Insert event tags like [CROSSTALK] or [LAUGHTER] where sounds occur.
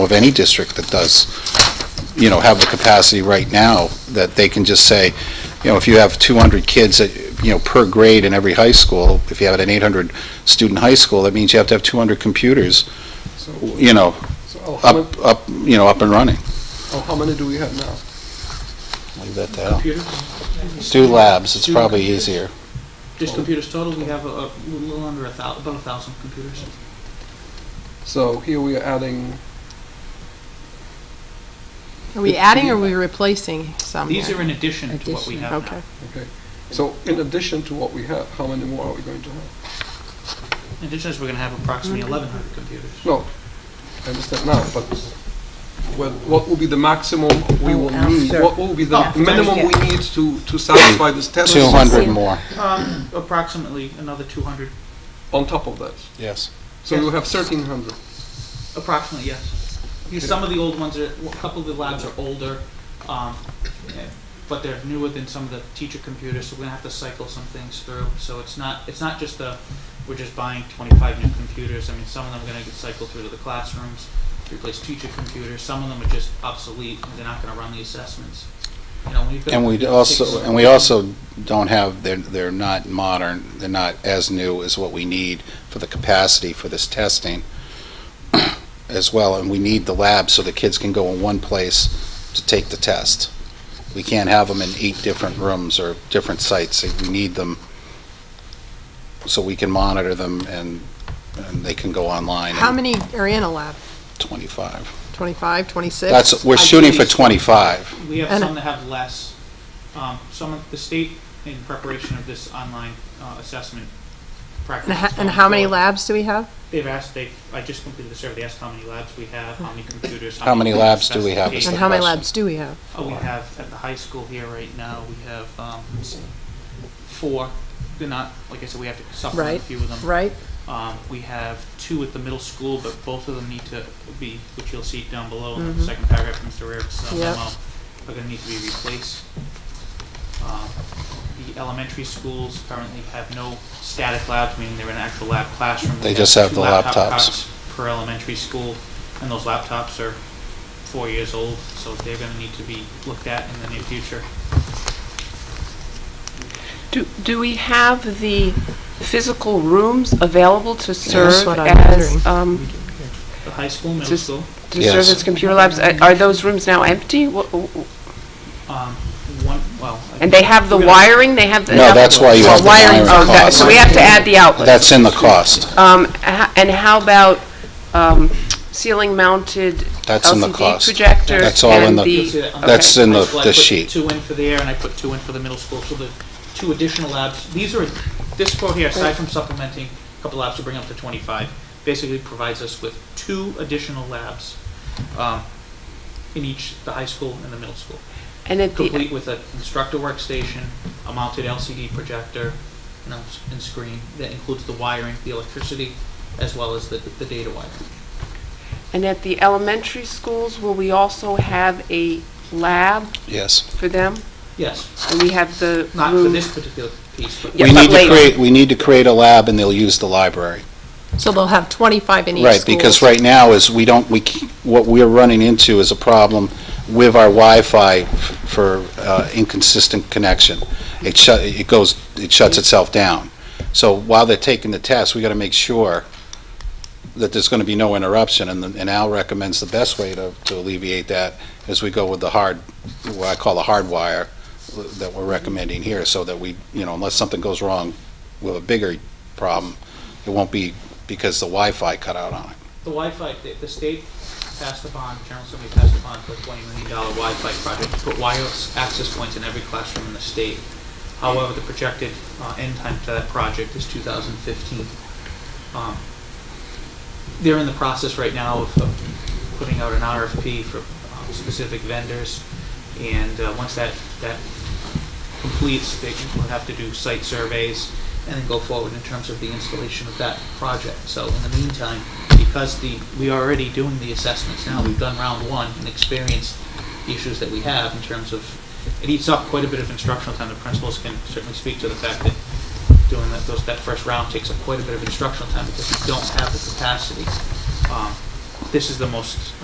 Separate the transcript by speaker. Speaker 1: of any district that does, you know, have the capacity right now, that they can just say, you know, if you have 200 kids, that, you know, per grade in every high school, if you have an 800-student high school, that means you have to have 200 computers,
Speaker 2: So,
Speaker 1: you know,
Speaker 2: so oh, how many,
Speaker 1: up, up, you know, up and running.
Speaker 2: oh, how many do we have now?
Speaker 1: Leave that to Al. Do labs, it's probably easier.
Speaker 3: Just computers total, we have a, a little under a thou, about a thousand computers.
Speaker 2: So here we are adding,
Speaker 4: Are we adding or are we replacing some
Speaker 3: These
Speaker 4: here?
Speaker 3: are in addition to what we
Speaker 5: Addition.
Speaker 3: have
Speaker 4: Okay.
Speaker 3: now.
Speaker 2: okay. So in addition to what we have, how many more are we going to have?
Speaker 3: In addition, to this, we're gonna have approximately eleven hundred computers.
Speaker 2: No, I understand now, but well, what will be the maximum we will
Speaker 5: Oh,
Speaker 2: need?
Speaker 5: after.
Speaker 2: What will be
Speaker 3: Oh,
Speaker 2: the minimum
Speaker 5: yeah.
Speaker 2: we need to, to satisfy this test
Speaker 1: 200 more,
Speaker 3: Um, approximately another two hundred,
Speaker 2: on top of that?
Speaker 1: yes.
Speaker 2: So you have thirteen hundred.
Speaker 3: approximately, yes. Because some of the old ones are, a couple of the labs are older, um, eh, but they're newer than some of the teacher computers, so we're gonna have to cycle some things through. So it's not, it's not just the, we're just buying twenty-five new computers, I mean, some of them are gonna get cycled through to the classrooms, replace teacher computers, some of them are just obsolete, and they're not gonna run the assessments. You know, we've got.
Speaker 1: And we
Speaker 3: six-
Speaker 1: also, and we also don't have, they're, they're not modern, they're not as new as what we need for the capacity for this testing [CLEARS THROAT] as well, and we need the lab so the kids can go in one place to take the test. We can't have them in eight different rooms or different sites, we need them so we can monitor them and, and they can go online
Speaker 4: How
Speaker 1: in
Speaker 4: many are in a lab?
Speaker 1: twenty-five.
Speaker 4: 25, 26?
Speaker 1: That's, we're shooting for
Speaker 3: Ideally-
Speaker 1: twenty-five,
Speaker 3: We have
Speaker 4: And-
Speaker 3: some that have less. Um, some of the state, in preparation of this online uh, assessment practice.
Speaker 4: And ho-
Speaker 3: is
Speaker 4: and
Speaker 3: going
Speaker 4: how many
Speaker 3: forward.
Speaker 4: labs do we have?
Speaker 3: They've asked, they, I just completed the survey, they asked how many labs we have, how many computers.
Speaker 1: How many labs do we have is
Speaker 4: And
Speaker 1: the
Speaker 3: specifications.
Speaker 4: how many
Speaker 1: question.
Speaker 4: labs do we have?
Speaker 3: Oh, we have, at the high school here right now, we have, um, four. They're not, like I said, we have to supplement a
Speaker 4: Right,
Speaker 3: few of them.
Speaker 4: right?
Speaker 3: Um, we have two at the middle school, but both of them need to be, which you'll see down below in
Speaker 6: Mm-hmm.
Speaker 3: the
Speaker 4: Mhm.
Speaker 3: second paragraph from Mr. Rarick's uh,
Speaker 4: Yep.
Speaker 3: memo, are gonna need to be replaced. Um, The elementary schools currently have no static labs, meaning they're in an actual lab classroom. We
Speaker 1: They just have
Speaker 3: two
Speaker 1: the
Speaker 3: laptop
Speaker 1: laptops.
Speaker 3: cots Per elementary school, and those laptops are four years old, so they're gonna need to be looked at in the near future.
Speaker 6: Do, do we have the physical rooms available to serve
Speaker 4: what I'm wondering.
Speaker 6: as, um,
Speaker 3: The high school, middle
Speaker 6: Just-
Speaker 3: school,
Speaker 6: to serve
Speaker 1: Yes.
Speaker 6: as computer labs? Are are those rooms now empty? Wha- wha- wha-
Speaker 3: um, one, well. I-
Speaker 6: And they have the
Speaker 3: we're gonna-
Speaker 6: wiring, they have the...
Speaker 1: No, that's why you
Speaker 6: Oh,
Speaker 1: have the wiring
Speaker 6: Oh, that-
Speaker 1: cost.
Speaker 6: So we have to add the outlet.
Speaker 1: that's in the cost.
Speaker 6: Um, h- And how about um, ceiling-mounted
Speaker 1: That's in the
Speaker 6: LCD
Speaker 1: cost.
Speaker 6: projectors?
Speaker 1: That's all in
Speaker 6: and
Speaker 1: the-
Speaker 3: You'll see that on the
Speaker 1: That's
Speaker 6: okay.
Speaker 1: in the,
Speaker 3: Well, I
Speaker 1: the
Speaker 3: put
Speaker 1: sheet.
Speaker 3: Two in for the air, and I put two in for the middle school, so the two additional labs, these are, this quote here, aside from supplementing a couple labs to bring up to twenty-five, basically provides us with two additional labs, um, in each, the high school and the middle school,
Speaker 6: And at the,
Speaker 3: complete with an instructor workstation, a mounted LCD projector, you know, s- and screen, that includes the wiring, the electricity, as well as the, the data wiring.
Speaker 6: and at the elementary schools, will we also have a lab
Speaker 1: Yes.
Speaker 6: for them?
Speaker 3: Yes,
Speaker 6: And we have the room...
Speaker 3: not for this particular piece, but
Speaker 6: Yeah,
Speaker 1: We
Speaker 6: but
Speaker 1: need to
Speaker 6: later.
Speaker 1: create, we need to create a lab and they'll use the library.
Speaker 4: So they'll have 25 in each
Speaker 1: Right, because
Speaker 4: school.
Speaker 1: right now is we don't, we, c- what we're running into is a problem with our Wi-Fi f- for uh, inconsistent connection. It shut, it goes, it shuts itself down. So while they're taking the test, we gotta make sure that there's gonna be no interruption and, the- and Al recommends the best way to, to alleviate that is we go with the hard, what I call the hard wire that we're recommending here so that we, you know, unless something goes wrong with a bigger problem, it won't be because the Wi-Fi cut out on it.
Speaker 3: The Wi-Fi, the, the state passed a bond, General Assembly passed a bond for a twenty million dollar Wi-Fi project to put wireless access points in every classroom in the state. However, the projected, uh, end time for that project is two thousand fifteen. Um, they're in the process right now of, of putting out an RFP for, um, specific vendors. And, uh, once that, that completes, they will have to do site surveys and then go forward in terms of the installation of that project. So in the meantime, because the, we are already doing the assessments now, we've done round one and experienced the issues that we have in terms of, it eats up quite a bit of instructional time. The principals can certainly speak to the fact that doing that, those, that first round takes up quite a bit of instructional time because we don't have the capacity. Um, This is the most